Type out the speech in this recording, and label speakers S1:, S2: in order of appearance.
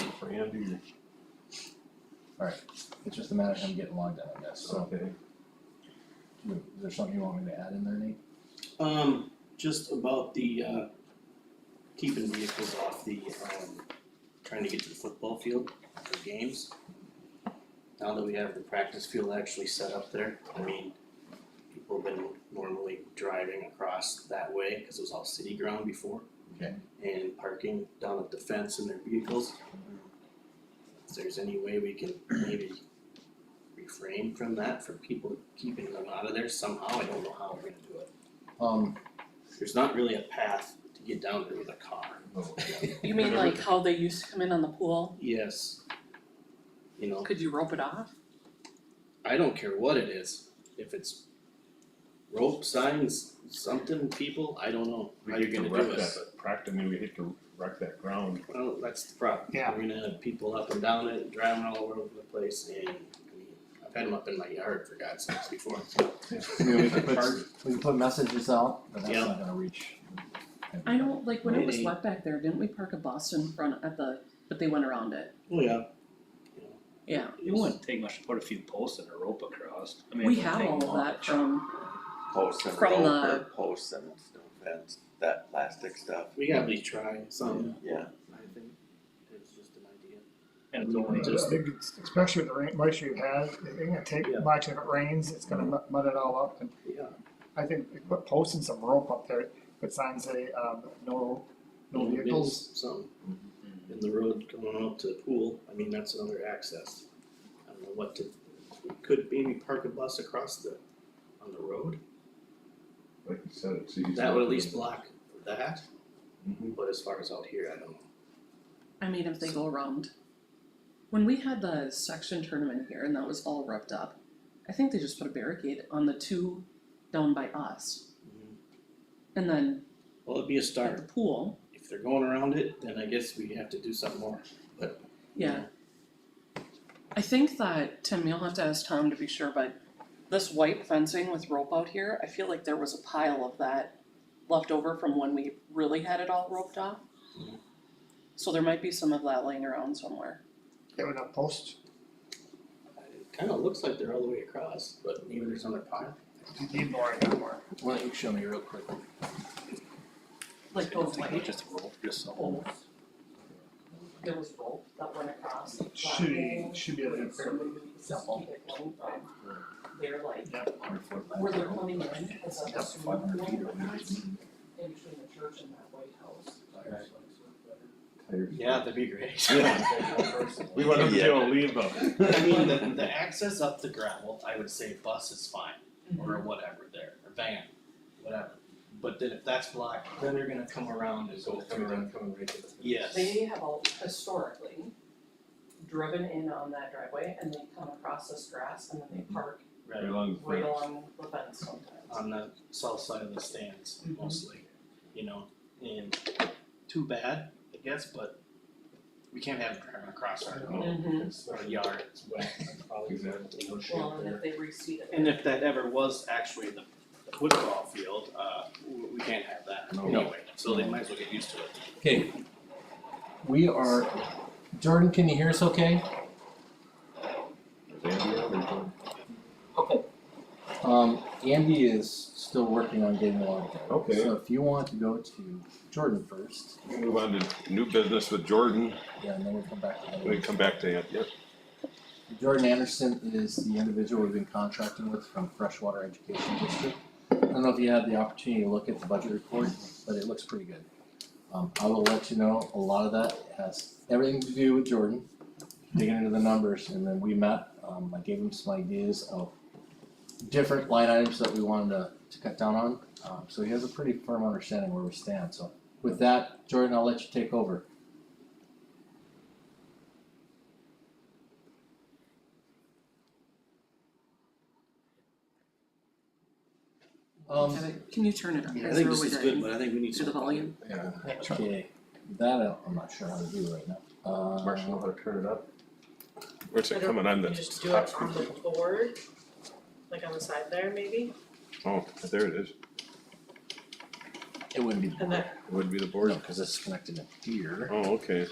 S1: do you? Alright, it's just a matter of him getting logged in, I guess, so,
S2: Okay.
S1: is there something you want me to add in there, Nate?
S3: Um, just about the uh keeping vehicles off the um trying to get to the football field for games. Now that we have the practice field actually set up there, I mean, people have been normally driving across that way, cause it was all city ground before.
S1: Okay.
S3: And parking down at the fence in their vehicles. If there's any way we can maybe refrain from that, for people keeping them out of there somehow, I don't know how we're gonna do it.
S1: Um,
S3: There's not really a path to get down there with a car.
S4: You mean like how they used to come in on the pool?
S3: Yes. You know,
S4: Could you rope it off?
S3: I don't care what it is, if it's rope signs, something, people, I don't know
S2: We
S3: how you're
S2: hit the
S3: gonna do
S2: wreck
S3: it.
S2: that Practice, I mean, we hit to wreck that ground.
S3: Well, that's the problem.
S5: Yeah.
S3: We're gonna have people up and down it, driving all over the place and, I mean, I've had them up in my yard for God's sakes before.
S1: I mean, we can
S2: But-
S1: put, we can put messages out, but that's
S3: Yeah.
S1: not gonna reach.
S4: I don't, like when it was
S3: Maybe.
S4: wet back there, didn't we park a bus in front at the, but they went around it,
S3: Oh, yeah.
S4: yeah.
S6: It wouldn't take much to put a few posts and a rope across. I mean, it
S4: We
S6: wouldn't
S4: have
S6: take
S4: all of
S6: long.
S4: that from,
S7: Posts and
S4: From the-
S7: rope or posts and stuff, fence, that plastic stuff,
S3: We gotta at least try something,
S7: yeah.
S3: I think. It's just an idea.
S6: And it's only
S3: Just-
S6: just,
S5: I think it's- Especially with the rain, moisture you've had, it's gonna take
S3: Yeah.
S5: much if it rains, it's gonna mu- mud it all up. And
S3: Yeah.
S5: I think we put posting some rope up there, put signs say, um, no, no
S3: Maybe
S5: vehicles.
S3: it's Something in the road going up to the pool, I mean, that's another access. I don't know what to, we could maybe park a bus across the, on the road,
S2: Like you said, it's easy.
S3: that would at least block that,
S2: Mhm.
S3: but as far as out here, I don't know.
S4: I mean, if they go around. When we had the section tournament here and that was all roughed up, I think they just put a barricade on the two down by us.
S3: Mhm.
S4: And then
S3: Well, it'd be a
S4: at the
S3: start,
S4: pool,
S3: if they're going around it, then I guess we have to do something more, but. you
S4: yeah.
S3: know,
S4: I think that, Tim, you'll have to ask Tom to be sure, but this white fencing with rope out here, I feel like there was a pile of that left over from when we really had it all roped off.
S3: Mhm.
S4: So there might be some of that laying around somewhere.
S5: Get rid of posts,
S3: It kinda looks like they're all the way across, but maybe there's another pile.
S5: you need more and not more.
S1: Why don't you show me real quick?
S4: Like
S6: I don't think it was just a rope, just a whole.
S4: there was rope that went across.
S5: Should, be- should be able to.
S4: Simple. They're like,
S1: Were
S4: coming in, it's like
S1: Five hundred feet or
S4: in between the church and that white house.
S2: Tires.
S3: Yeah, that'd be great.
S2: We want them to be able to leave
S3: I mean, the,
S2: them.
S3: the access up the gravel, I would say bus is fine, or whatever there, or van, whatever. But then if that's blocked, then they're gonna come around and go through them.
S2: coming right to the.
S3: Yes,
S4: They have all historically driven in on that driveway and they come across this grass and then they park
S3: right,
S4: right along the fence sometimes.
S3: on the south side of the stands
S4: Mhm.
S3: mostly, you know, and too bad, I guess, but we can't have gravel across our,
S4: Mhm.
S3: our yard, it's wet, probably.
S2: Exactly. No shade
S4: Well, and
S2: there.
S4: if they reseed it.
S3: And if that ever was actually the the football field, uh, we, we can't have that
S2: No.
S3: anyway, so they might as well get used to it.
S1: Okay. We are, Jordan, can you hear us okay? Um, Andy is still working on getting logged in.
S2: Okay.
S1: So if you want to go to Jordan first,
S8: We'll Move on to new business with Jordan,
S1: yeah, and then we'll come back to Andy.
S8: we come back to it, yep.
S1: Jordan Anderson is the individual we've been contracting with from Freshwater Education District. I don't know if you had the opportunity to look at the budget report, but it looks pretty good. Um, I will let you know, a lot of that has everything to do with Jordan, digging into the numbers, and then we met, um, I gave him some ideas of different line items that we wanted to, to cut down on, um, so he has a pretty firm understanding where we stand, so with that, Jordan, I'll let you take over. Um,
S4: Can you turn it up?
S3: I think this is good, but I think we need
S4: To the volume.
S2: Yeah,
S1: Okay, that I- I'm not sure how to do right now. Uh,
S2: Marshall, know how to turn it up.
S8: Where's it coming on the
S9: You just do it
S8: top?
S9: on the board, like on the side there maybe,
S8: Oh, there it is,
S1: it wouldn't be the
S9: and then
S1: board,
S8: It wouldn't be the board,
S1: no, cause it's connected in here.
S8: oh, okay,